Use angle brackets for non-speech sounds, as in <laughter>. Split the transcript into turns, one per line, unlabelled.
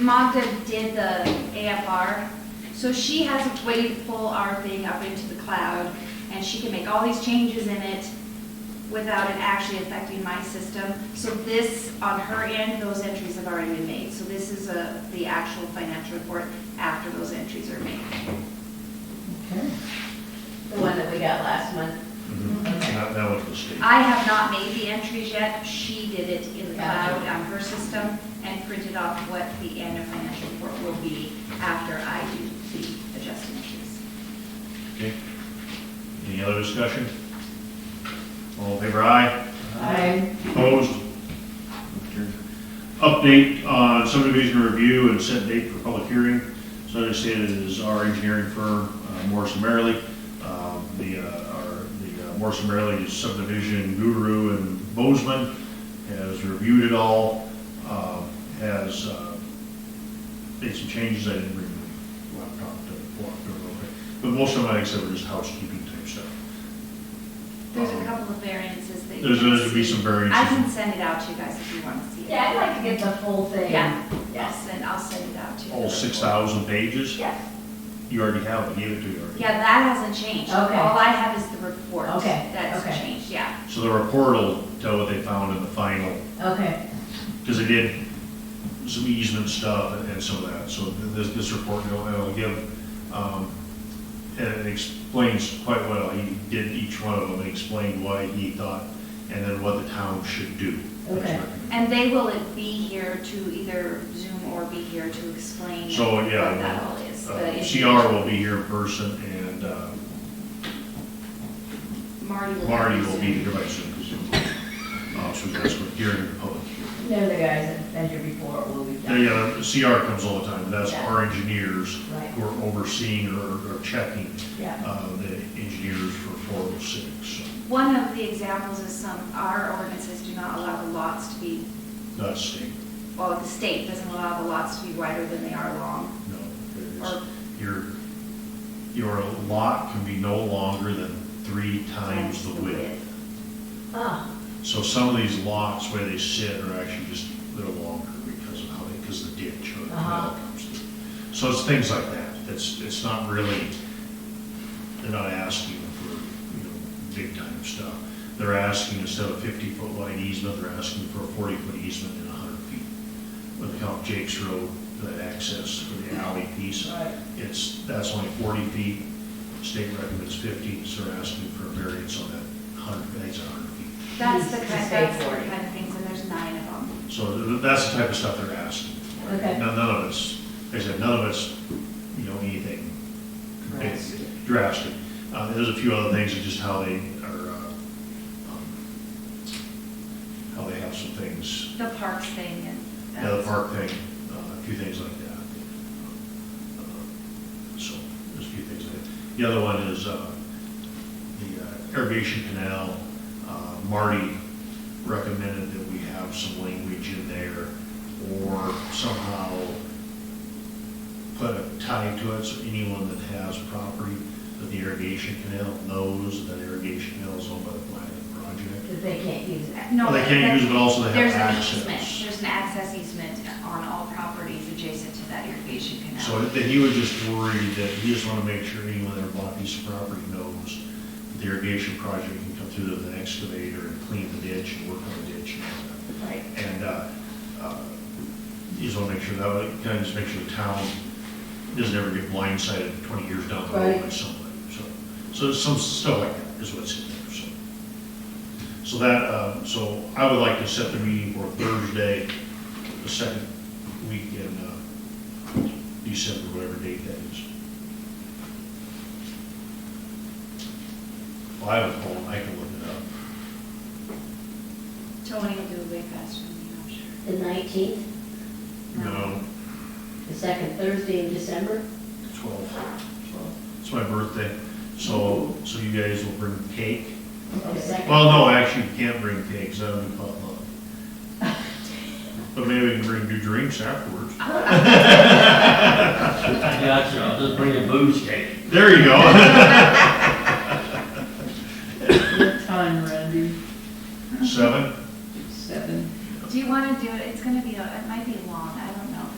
Magda did the AFR, so she has a way to pull our thing up into the cloud, and she can make all these changes in it without it actually affecting my system. So this, on her end, those entries have already been made. So this is a, the actual financial report after those entries are made.
Okay.
The one that we got last month.
That that was the state.
I have not made the entries yet. She did it in the
Gotcha.
cloud on her system and printed off what the annual financial report will be after I do the adjusting entries.
Okay. Any other discussion? All in favor, aye.
Aye.
Opposed? Update on subdivision review and set date for public hearing. So I understand it is our engineering firm, uh, Morrison Merrily. Um, The, uh, our, the uh, Morrison Merrily subdivision guru in Bozeman has reviewed it all, um, has uh, made some changes I didn't read the laptop to walk through a little bit. But most of them, like I said, were just housekeeping type stuff. Um,
There's a couple of variances that. you
There's,
can
there's gonna be
see.
some
I
variances.
can send it out to you guys if you want to see it.
Yeah, I'd like to get the whole thing.
Yeah. I'll
Yes.
send, I'll send it out to you.
All six thousand pages?
Yes.
You already have, it. I gave it to you already.
Yeah, that hasn't changed.
Okay.
All I have is the report.
Okay,
That's
okay.
changed, yeah.
So the report will tell what they found in the final,
Okay,
because they did some easement stuff and some of that. So this, this report, it'll, it'll give, um, and it explains quite well. He did each one of them and explained why he thought, and then what the town should do.
Okay.
And they will be here to either Zoom or be here to explain
So,
what
yeah,
that all is.
Uh,
the issue.
CR will be here in person and, uh,
Marty will.
Marty will be here by
<laughs>
soon, because so that's what hearing the public. hearing.
they're the guys that been here before, will be
They,
done.
uh, CR comes all the time, and that's
Yeah.
our engineers
Right,
who are overseeing or or checking
yeah,
uh, the engineers for 406.
One of the examples is some, our ordinances do not allow the lots to be,
Not state,
well, the state doesn't allow the lots to be wider than they are long.
no. it is-
Or-
Your, your lot can be no longer than three times the width.
oh,
So some of these lots where they sit are actually just, they're longer because of how they, because the ditch or the
Uh-huh.
canal comes through. So it's things like that. It's, it's not really, they're not asking for, you know, big time stuff. They're asking instead of fifty foot wide easement, they're asking for a forty foot easement and hundred feet. When they count Jake's Road, that access for the alley piece,
right,
it's, that's only forty feet. State recommends fifty, so they're asking for a variance on that hundred, I think it's hundred feet.
That's the
Just
kind,
say
that's the
40.
kind of things, and there's nine of them.
So th- that's the type of stuff they're asking.
okay.
None, none of it's, like I said, none of it's, you know, anything big,
Drastic.
drastic. Uh, there's a few other things, of just how they are, uh, um, how they have some things,
The parks thing and.
yeah, the
that's-
park thing, uh, a few things like that. Uh, So, there's a few things like that. The other one is, uh, the uh, irrigation canal, uh, Marty recommended that we have some language in there or somehow put a tie to it so anyone that has property that the irrigation canal knows that irrigation canal is owned by the planning project.
That they can't use it.
Uh, No,
Well, they can't
that-
use it, but also they have
There's an
access.
easement, there's an access easement on all properties adjacent to that irrigation
So
canal.
then he was just worried that he just want to make sure anyone that bought a piece of property knows that the irrigation project can come through with an excavator and clean the ditch and work on the ditch and all that.
Right,
And uh, uh, you just want to make sure that, way- kind of just make sure the town doesn't ever get blindsided 20 years down the road by
Right.
somebody. So, so it's some stuff like that is what's in there, so. So that, uh, so I would like to set the meeting for Thursday, the second week in uh, December, whatever date that is. Well, I have a phone, I can look it up.
Tony will do it way faster than me, I'm sure.
The nineteenth,
You know,
the second Thursday in December?
12. It's my birthday, so, so you guys will bring cake?
The second?
Well, no, actually, you can't bring cake, 'cause that would be potluck. But maybe we can bring new drinks afterwards.
I got you, I'll just bring a booze cake.
There you go. <laughs>